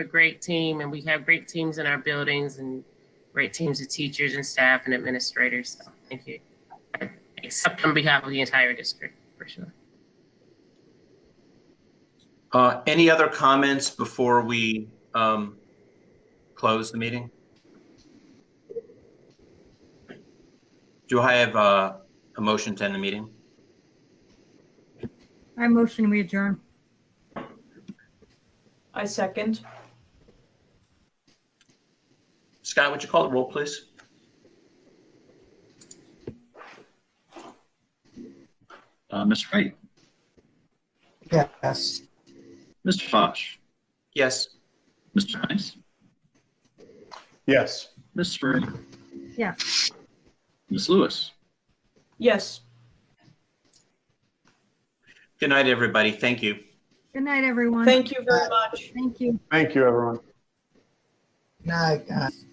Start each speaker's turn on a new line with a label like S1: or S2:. S1: a great team and we have great teams in our buildings and great teams of teachers and staff and administrators. So thank you. Except on behalf of the entire district, for sure.
S2: Uh, Any other comments before we um, close the meeting? Do I have uh, a motion to end the meeting?
S3: I motion we adjourn.
S4: I second.
S2: Scott, would you call the roll, please?
S5: Uh, Ms. Wright,
S6: Yes.
S5: Mr. Fosh,
S2: Yes.
S5: Mr. Nice,
S6: Yes.
S5: Ms. Spring.
S3: Yeah.
S5: Ms. Lewis.
S4: Yes.
S2: Good night, everybody. Thank you.
S3: Good night, everyone.
S4: Thank you very much.
S3: Thank you.
S6: Thank you, everyone.
S7: Night, guys.